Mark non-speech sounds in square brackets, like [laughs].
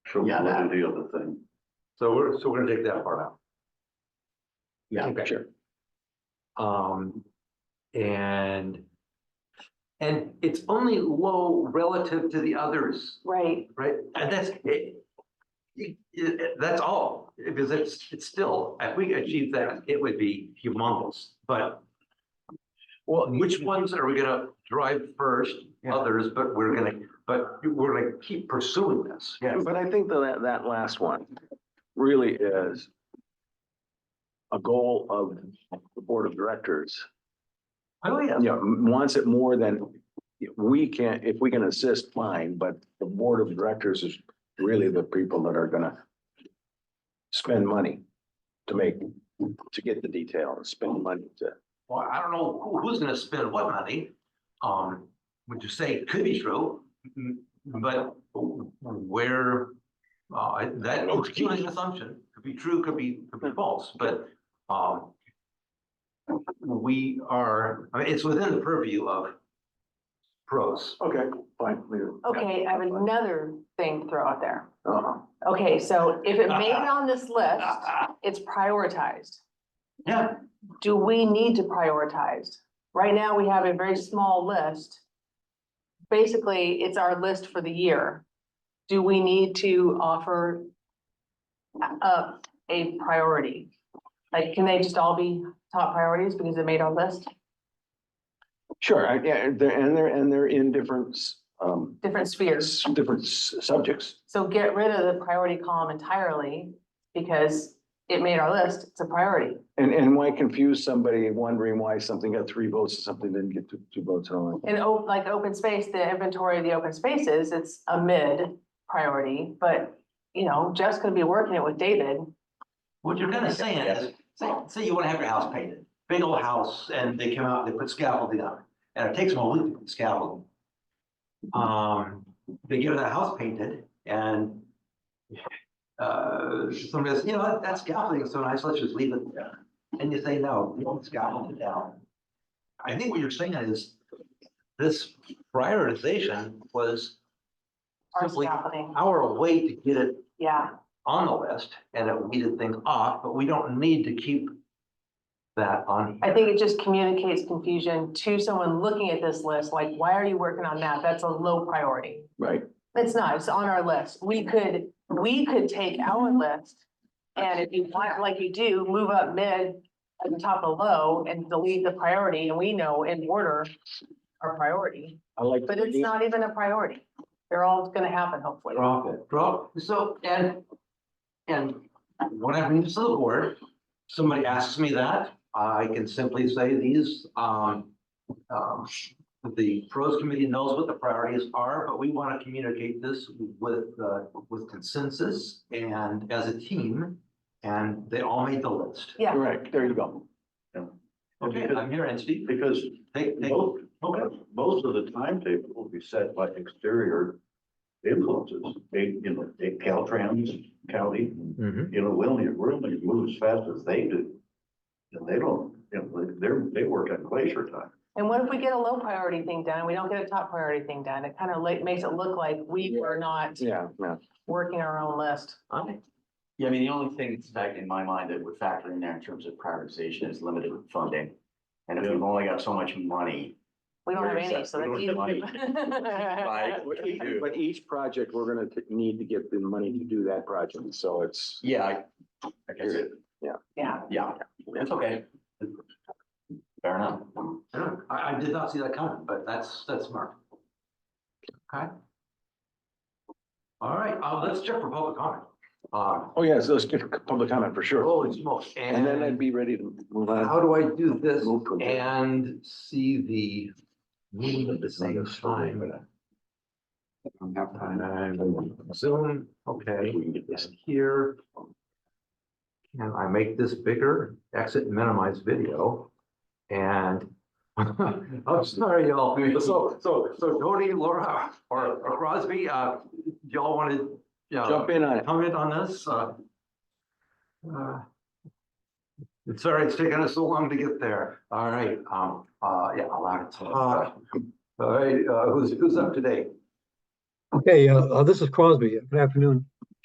Sure, Yeah, we'll do the other thing. So we're, so we're gonna take that part out. Yeah, Okay. sure. Um, and. And it's only low relative to the others, Right, right? And that's it. it- it- that's all, because it's, it's still, if we achieve that, it would be humongous, but. Well, which ones are we gonna drive first? Yeah. Others, but we're gonna, but we're gonna keep pursuing this. But I think though that, that last one really is a goal of the board of directors. Oh, yeah. You know, m- wants it more than we can, if we can assist, fine, but the board of directors is really the people that are gonna spend money to make, to get the detail and spend money to. Well, I don't know who- who's gonna spend what money, um, would you say it could be true? m- But where, uh, I- that, it's purely an assumption, could be true, could be, could be false, but, um. We are, I mean, it's within the purview of [laughs] pros. Okay, fine. okay, I have another thing to throw out there. Uh-huh. Okay, so if it made it on this [laughs] list, Yeah, it's prioritized. Do we need to prioritize? Right now, we have a very small list. Basically, it's our list for the year. Do we need to offer up a priority? Like, can they just all be top priorities because it made our list, Sure, I, yeah, and they're, and they're, and they're in different, s- um, different spheres? s- different s- subjects. So get rid of the priority column entirely because it made our list, it's a priority. And, and why confuse somebody wondering why something got three votes and something didn't get two, two votes and all that? And o- like open space, the inventory of the open spaces, it's a mid priority, but you know, Jeff's gonna be working it with David. What you're kind of saying is, say, say you want to have your house painted, big old house, and they come out, they put scaffolding on, it, and it takes them a week to put scaffolding. Um, they get that house painted and uh, somebody says, you know, what, that scaffolding is so nice, let's just leave it there. And you say, no, we don't scaffold it down. I think what you're saying is this prioritization was Our Simply- scaffolding, our way to get it yeah, on the list and it weeded things off, but we don't need to keep that on. I think it just communicates confusion to someone looking at this list, like, why are you working on that? That's a low priority. Right, It's not, it's on our list. We could, we could take our list. And if you want, like you do, move up mid and top of low and delete the priority and we know in order our priority, I like. but it's not even a priority. They're all gonna happen hopefully. Drop it, drop, so, and, and when I bring this to the board, somebody asks me that, I can simply say these, um, um, the pros committee knows what the priorities are, but we want to communicate this with, uh, with consensus and as a team, and they all made the list. Yeah. Correct, there you go. Okay, I'm here, and Steve, Because take, take. most, Okay. most of the timetable will be set by exterior influences. They, you know, they Caltrans, county, you know, we only, we're only move as fast as they do. And they don't, you know, they're, they work on glacier time. And what if we get a low priority thing done? We don't get a top priority thing done. It kind of like makes it look like we were not Yeah, yeah. working our own list. Yeah, I mean, the only thing that's back in my mind that would factor in there in terms of prioritization is limited funding. And if we've only got so much money, We don't have Where is any, that? so We that's don't have [laughs] easy. Right. But each, but each project, we're gonna t- need to get the money to do that project, so it's. yeah, I, I guess it, Yeah. yeah, it's okay. Fair enough. Yeah, I, I did not see that coming, but that's, that's smart. Okay. All right, uh, let's check for public comment. Uh, Oh, yes, those get public comment for sure. holy smokes, And then I'd Oh, and be ready to move on. how do I do this Move to adjourn. and see the meeting at the same time? I have time, Zoom, okay, it's here. Can I make this bigger? Exit minimize video. And [laughs] I'm sorry, y'all. So, so, so Tony, Laura, or or Crosby, uh, y'all wanted, yeah, Jump in on it. comment on this? Uh, uh, It's sorry, it's taken us so long to get there. All right, um, uh, yeah, allowed to talk. All right, uh, who's, who's up today? Okay, uh, uh, this is Crosby. Good afternoon.